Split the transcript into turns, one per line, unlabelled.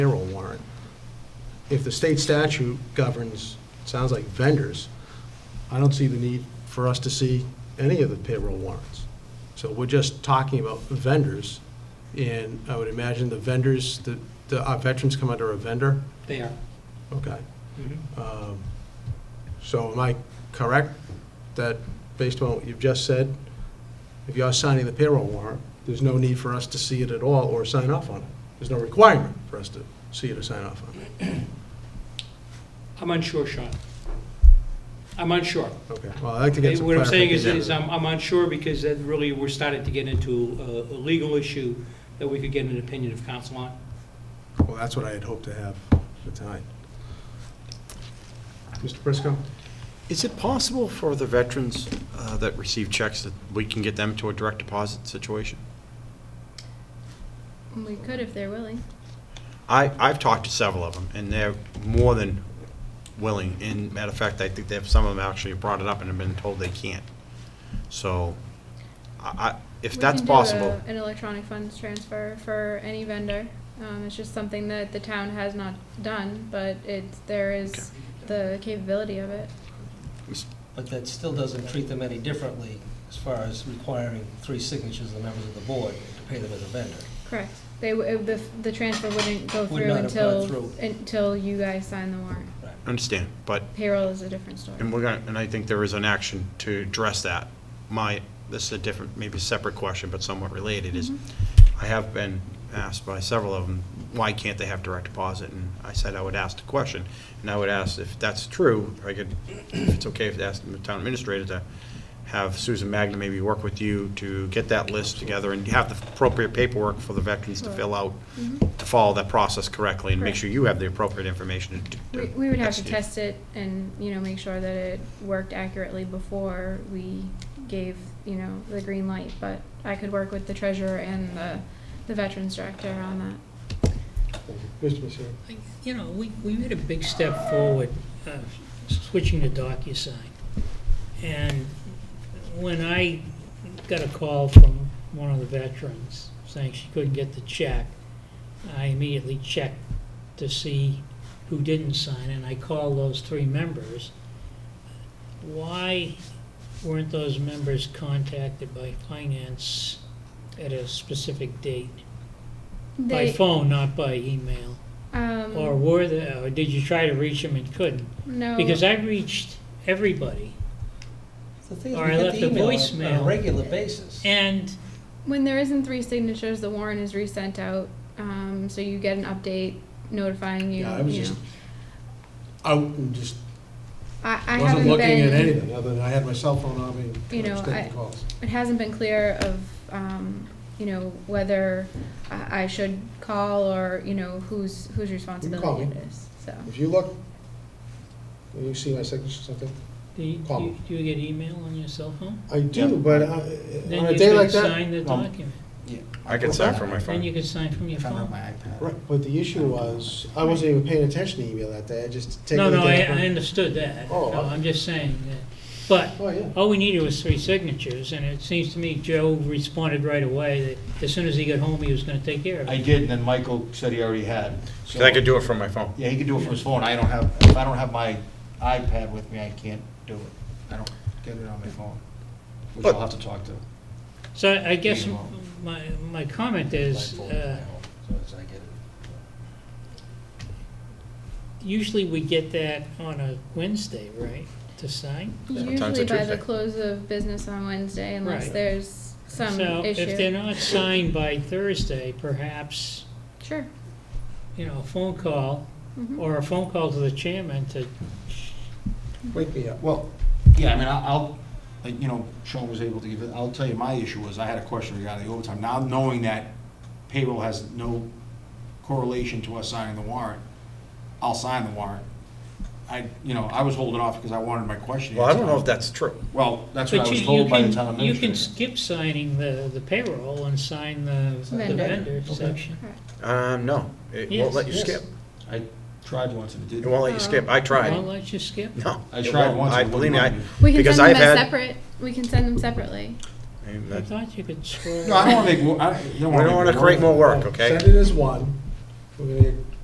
if the state statute governs, it sounds like vendors, I don't see the need for us to see any of the payroll warrants. So we're just talking about vendors, and I would imagine the vendors, the, the, our veterans come under a vendor?
They are.
Okay.
Mm-hmm.
Um, So am I correct that, based on what you've just said, if you're signing the payroll warrant, there's no need for us to see it at all or sign off on it? There's no requirement for us to see it or sign off on it?
I'm unsure, Sean. I'm unsure.
Okay, well, I'd like to get some clarification.
What I'm saying is, is I'm I'm unsure because that really, we're starting to get into a a legal issue that we could get an opinion of counsel on. um,
Well, that's what I had hoped to have for tonight. Mr. Prisco?
Is it possible for the veterans uh, that receive checks that we can get them to a direct deposit situation?
We could if they're willing.
I, I've talked to several of them, and they're more than willing. And matter of fact, I think they have, some of them actually brought it up and have been told they can't. So, I, I- if
We
that's
can do
possible,
a- An electronic funds transfer for any vendor. Um, it's just something that the town has not done, but it's, there is the capability of it.
But that still doesn't treat them any differently as far as requiring three signatures of the members of the board to pay them as a vendor.
Correct. They, w- the, the transfer wouldn't go
Would
through
not have gone
until,
through.
until you guys sign the warrant.
I understand, but
Payroll is a different story.
And we're gonna, and I think there is an action to address that. My, this is a different, maybe a separate question, but somewhat related, is
Mm-hmm.
I have been asked by several of them, why can't they have direct deposit? And I said I would ask the question, and I would ask if that's true, I could, if it's okay if I ask the town administrator to have Susan Magna maybe work with you to get that list together and have the appropriate paperwork for the veterans to fill out,
Mm-hmm.
to follow that process correctly and make
Correct.
sure you have the appropriate information to- to
We, we would have to
execute.
test it and, you know, make sure that it worked accurately before we gave, you know, the green light, but I could work with the treasurer and the, the veterans director on that.
Mr. Michelle?
I- You know, Uh, we, we made a big step forward, uh, switching to DocuSign. And when I got a call from one of the veterans saying she couldn't get the check, I immediately checked to see who didn't sign, and I called those three members. Why weren't those members contacted by finance at a specific date? By
They,
phone, not by email? Or
um,
were there, or did you try to reach them and couldn't?
no,
Because I reached everybody,
The thing is,
Or
we
I
get
left
the
a
email on- on a
voicemail.
regular basis.
and
when there isn't three signatures, the warrant is resent out, um, so you get an update notifying you,
Yeah, I was
you know.
just out and just
I, I
wasn't
haven't
looking at
been,
anything, other than I had my cell phone on me,
You
and I was
know, I-
taking calls.
it hasn't been clear of, um, you know, whether I, I should call or, you know, whose, whose responsibility
me.
it is, so.
If you look, you see my signature or something?
do you,
Call
do
them.
you- do you get email on your cell phone?
I do,
Yeah. Um,
but I- on a
Then you
day
can
like that, Um,
sign the
Well,
document,
I can sign from my phone.
then you can sign from your phone.
right, but the issue was, I wasn't even paying attention to email that day, I just taking
No,
the
no, I,
day.
I understood that,
Oh,
no,
I-
I'm just saying that, but
Oh, yeah,
all we needed was three signatures, and it seems to me Joe responded right away that as soon as he got home, he was gonna take care of
I
it.
did, and then Michael said he already had. So-
Because I could do it from my phone.
Yeah, he could do it from his phone. I don't have, if I don't have my iPad with me, I can't do it. I don't get it on my phone, which I'll have to talk to.
So I I guess
Email.
my, my comment is,
Michael
uh,
at home, So as I get it.
usually we get that on a Wednesday, right, to sign?
Sometimes
Usually
it's
by the
Tuesday.
close of business on Wednesday unless
Right.
there's some
So if
issue.
they're not signed by Thursday, perhaps,
Sure.
you know, a phone call,
Mhm.
or a phone call to the chairman to,
wake me up.
Well, yeah, I mean, I- I'll, like, you know, Sean was able to give it, I'll tell you, my issue was, I had a question regarding the overtime. Now, knowing that payroll has no correlation to us signing the warrant, I'll sign the warrant. I, you know, I was holding off because I wanted my question
Well, I don't know if
answered.
that's true.
Well, that's what I
but you,
was
you
told by the town
can, you can
administrator.
skip signing the, the payroll and sign the the
Vendor.
vendor
Okay.
section.
Um, no, it won't
Yes,
let you
yes.
skip.
I tried once and it
It
didn't.
won't let you skip. I
I'll
tried.
let you skip.
No.
I
it
tried
won't.
once,
I
it wouldn't
believe me.
let
I-
me.
We can
Because
send them
I've
as
had-
separate, we can send them separately.
I mean,
I
that-
thought you could scroll.
No, I don't want to make, more- I you don't
We
want to.
don't want to create more work, okay?
Send it as one, we're gonna get